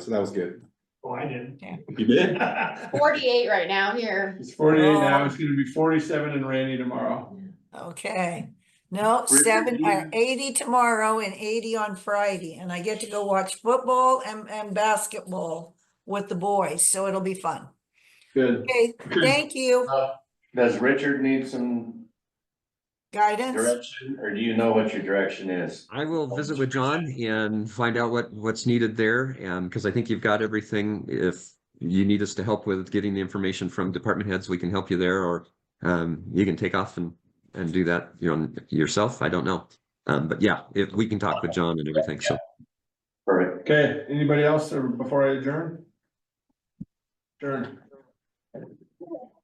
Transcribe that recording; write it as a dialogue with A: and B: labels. A: So that was good.
B: Oh, I did.
A: You did?
B: not
C: Forty-eight right now here.
D: It's forty-eight now, it's gonna be forty-seven and rainy tomorrow.
E: Okay,
D: Where
E: no,
D: did
E: seven, uh,
D: you-
E: eighty tomorrow and eighty on Friday, and I get to go watch football and, and basketball with the boys, so it'll be fun.
D: Good.
E: Okay, thank you,
F: Does Richard need some
E: guidance,
F: direction, or do you know what your direction is?
G: I will visit with John and find out what, what's needed there, and, because I think you've got everything. If you need us to help with getting the information from department heads, we can help you there, or um, you can take off and, and do that, you know, yourself. I don't know. Um, but yeah, if, we can talk with John and everything, so.
F: Perfect.
D: Okay, anybody else uh, before I adjourn? Adjourn.